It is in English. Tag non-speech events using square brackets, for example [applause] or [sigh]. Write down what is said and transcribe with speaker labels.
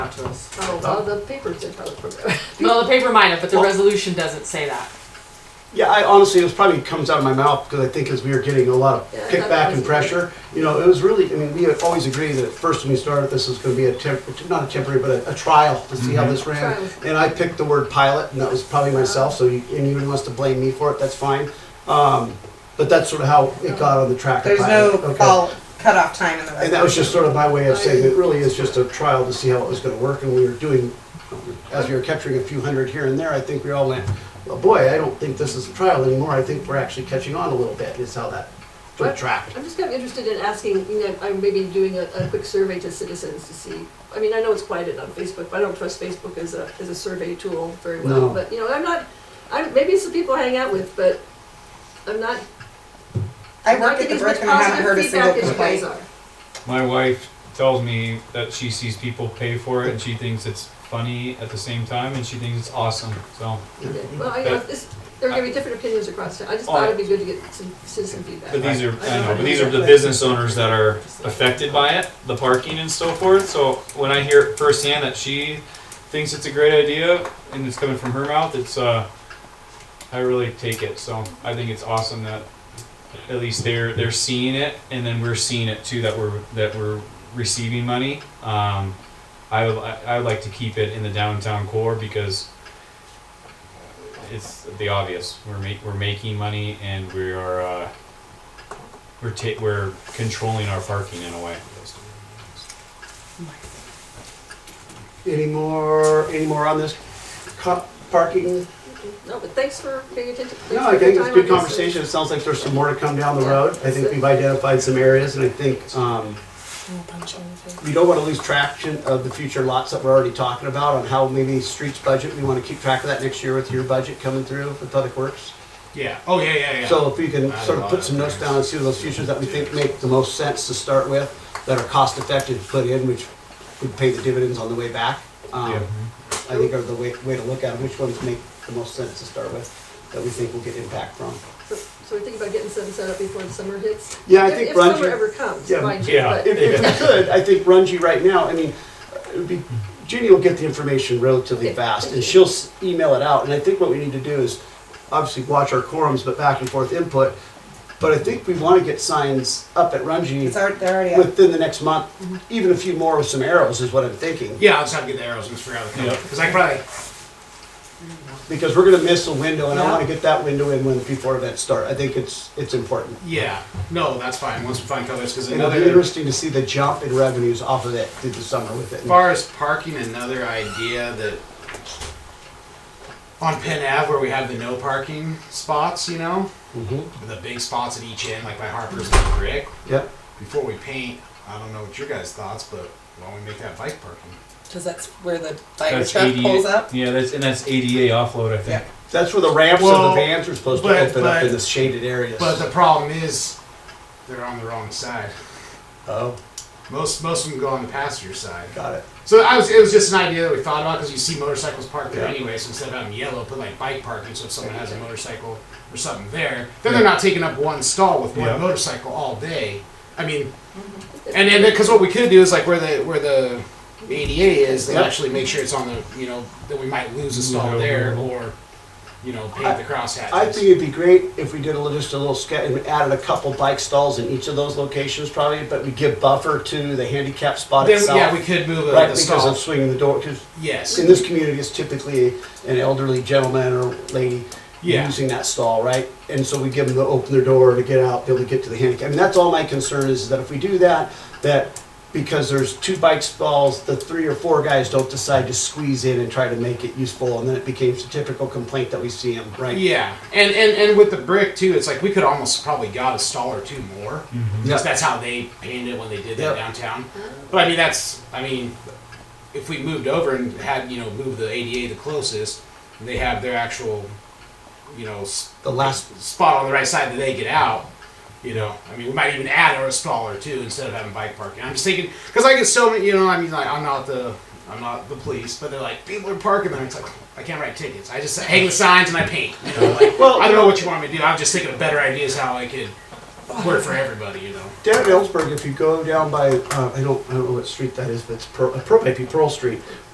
Speaker 1: because
Speaker 2: Oh, well, the paper did have a [laughs] program.
Speaker 3: Well, the paper might have, but the
Speaker 1: Well-
Speaker 3: resolution doesn't say that.
Speaker 1: yeah, I honestly, it was probably comes out of my mouth because I think as we were getting a lot of
Speaker 2: Yeah, I thought that
Speaker 1: kickback
Speaker 2: was
Speaker 1: and
Speaker 2: good.
Speaker 1: pressure, you know, it was really. I mean, we had always agreed that at first when we started this was going to be a temp, not a temporary, but a, a trial to
Speaker 4: Mm-hmm.
Speaker 1: see how this ran.
Speaker 2: Trial.
Speaker 1: And I picked the word pilot, and that was probably myself. So you, anyone wants to blame me for it, that's fine. Um, but that's sort of how
Speaker 2: Oh.
Speaker 1: it got on the track. of
Speaker 4: There's no
Speaker 1: pilot. Okay.
Speaker 4: fall cutoff time in the resolution.
Speaker 1: And that was just sort of my way of saying it really is just a trial to see how it was gonna work, and we were doing, as we were capturing a few hundred here and there, I think we all went, well, boy, I don't think this is a trial anymore, I think we're actually catching on a little bit, is how that sort of tracked.
Speaker 2: I'm just kind of interested in asking, you know, I'm maybe doing a, a quick survey to citizens to see, I mean, I know it's quieted on Facebook, but I don't trust Facebook as a, as a survey tool very well.
Speaker 1: No.
Speaker 2: But, you know, I'm not, I'm, maybe it's the people I hang out with, but I'm not.
Speaker 4: I
Speaker 2: I'm not
Speaker 4: work at the
Speaker 2: getting as
Speaker 4: brick
Speaker 2: much
Speaker 4: and I haven't
Speaker 2: positive
Speaker 4: heard a single
Speaker 2: feedback as you guys
Speaker 4: complaint.
Speaker 2: are.
Speaker 5: My wife tells me that she sees people pay for it and she thinks it's funny at the same time and she thinks it's awesome. So,
Speaker 2: Yeah, Well, I, you know, this, there are gonna be different opinions across town, I just thought it'd be good to get some citizen feedback.
Speaker 5: but these are, I know, but these are the business owners that are affected by it, the parking and so forth. So when I hear it firsthand that she thinks it's a great idea and it's coming from her mouth, it's, uh, I really take it. So I think it's awesome that at least they're, they're seeing it and then we're seeing it too, that we're, that we're receiving money. Um, I would, li- I would like to keep it in the downtown core because it's the obvious. We're ma- we're making money and we are uh, we're ta- we're controlling our parking in a way.
Speaker 1: Any more, any more on this co- parking?
Speaker 2: No, but thanks for paying attention. thanks
Speaker 1: No,
Speaker 2: for
Speaker 1: I think
Speaker 2: your
Speaker 1: it's
Speaker 2: time
Speaker 1: good
Speaker 2: on this.
Speaker 1: conversation, it sounds like there's some more to come down the road, I think we've identified some areas, and I think, um, we don't want to lose traction of the future lots that we're already talking about on how maybe streets budget, we want to keep track of that next year with your budget coming through with Public Works.
Speaker 5: Yeah. Oh yeah yeah yeah.
Speaker 1: So if we can
Speaker 5: Add a
Speaker 1: sort of
Speaker 5: lot
Speaker 1: put
Speaker 5: of
Speaker 1: some notes
Speaker 5: things.
Speaker 1: down and see those futures that we think make the most sense to start with, that are cost effective to put in, which would pay the dividends on the way back. um,
Speaker 5: Yeah.
Speaker 1: I think are the way, way to look at it, which ones make the most sense to start with, that we think will get impact from.
Speaker 2: So so we're thinking about getting something set up before the summer hits?
Speaker 1: Yeah, I
Speaker 2: If-
Speaker 1: think
Speaker 2: If
Speaker 1: Ron-
Speaker 2: summer ever comes,
Speaker 1: Yeah,
Speaker 2: mind you,
Speaker 5: yeah.
Speaker 2: but.
Speaker 1: If, if we could, I think Runji right now, I mean, it would be, Ginny will get the information relatively
Speaker 2: Okay.
Speaker 1: fast and she'll s- email it out. And I think what we need to do is obviously watch our quorums, but back and forth input. But I think we want to get signs up at Runji
Speaker 4: It's already, Mm-hmm. they're already up.
Speaker 1: within the next month, even a few more with some arrows is what I'm thinking.
Speaker 6: Yeah, I'll just have to get the arrows and just figure out the color.
Speaker 5: Yep.
Speaker 6: Because I probably,
Speaker 1: Because we're gonna miss a window and I
Speaker 4: Yeah.
Speaker 1: want to get that window in when before events start. I think it's, it's important.
Speaker 4: Mm-hmm.
Speaker 6: yeah, no, that's fine. Once we find colors, because
Speaker 1: It'll be
Speaker 6: another, as
Speaker 1: interesting to see the jump in revenues off of it through the summer with it.
Speaker 6: far as parking, another idea that on Penn Ave where we have the no parking spots, you know,
Speaker 1: Mhm.
Speaker 5: Mm-hmm.
Speaker 6: the big spots at each end, like by Harper's and Brick.
Speaker 1: Yep.
Speaker 6: Before we paint, I don't know what your guys' thoughts, but why don't we make that bike parking?
Speaker 4: Cause that's where the fire truck pulls up.
Speaker 5: Yeah, that's and that's ADA offload. I think.
Speaker 1: That's where the ramps
Speaker 6: Well,
Speaker 1: of the vans are supposed to
Speaker 6: but-
Speaker 1: open up
Speaker 6: but-
Speaker 1: in the shaded areas.
Speaker 6: But the problem is, they're on the wrong side.
Speaker 1: oh,
Speaker 6: Most most of them go on the passenger side.
Speaker 1: got it.
Speaker 6: So I was, it was just an idea that we thought about because you see motorcycles parked there
Speaker 1: Yeah.
Speaker 6: anyway. So instead of having yellow, put like bike parking. So if someone has a motorcycle or something there, then they're not taking up one stall with one
Speaker 5: Yeah.
Speaker 6: motorcycle all day. I mean, and then because what we could do is like where the where the ADA is, they
Speaker 1: Yeah.
Speaker 6: actually make sure it's on the you know that we might lose a stall
Speaker 5: Yeah.
Speaker 6: there or you know paint the crosshatches.
Speaker 1: I think it'd be great if we did a little, just a little sketch and added a couple bike stalls in each of those locations, probably. But we give buffer to the handicap spot
Speaker 6: then
Speaker 1: itself,
Speaker 6: yeah we could move a,
Speaker 1: right?
Speaker 6: the
Speaker 1: Because
Speaker 6: stall.
Speaker 1: of swinging the door. Because
Speaker 6: yes,
Speaker 1: in this community, it's typically an elderly gentleman or lady
Speaker 6: Yeah.
Speaker 1: using that stall, right? And so we give them to open their door to get out, be able to get to the handicap. And that's all my concern is that if we do that, that because there's two bike stalls, the three or four guys don't decide to squeeze in and try to make it useful, and then it becomes a typical complaint that we see them, right?
Speaker 6: Yeah, and, and and with the brick too, it's like we could almost probably got a stall or two more,
Speaker 1: Mm-hmm.
Speaker 6: because that's how they painted it when they did
Speaker 1: Yep.
Speaker 6: that downtown. But I mean, that's I mean, if we moved over and had you know moved the ADA the closest, and they have their actual, you know, s-
Speaker 1: The last,
Speaker 6: spot on the right side that they get out. You know, I mean, we might even add a stall or two instead of having bike parking. I'm just thinking because I get so many. You know, I mean, like I'm not the I'm not the police, but they're like people are parking there. It's like "Oh, I can't write tickets. I just hang the signs and I paint. You know, like,
Speaker 1: Well,
Speaker 6: I don't know what you want me to do. I'm just thinking of better ideas how I could work for everybody. You know.
Speaker 1: down at Ellsberg, if you go down by, uh, I don't, I don't know what street that is, but it's Pearl, it uh, might be Pearl Street.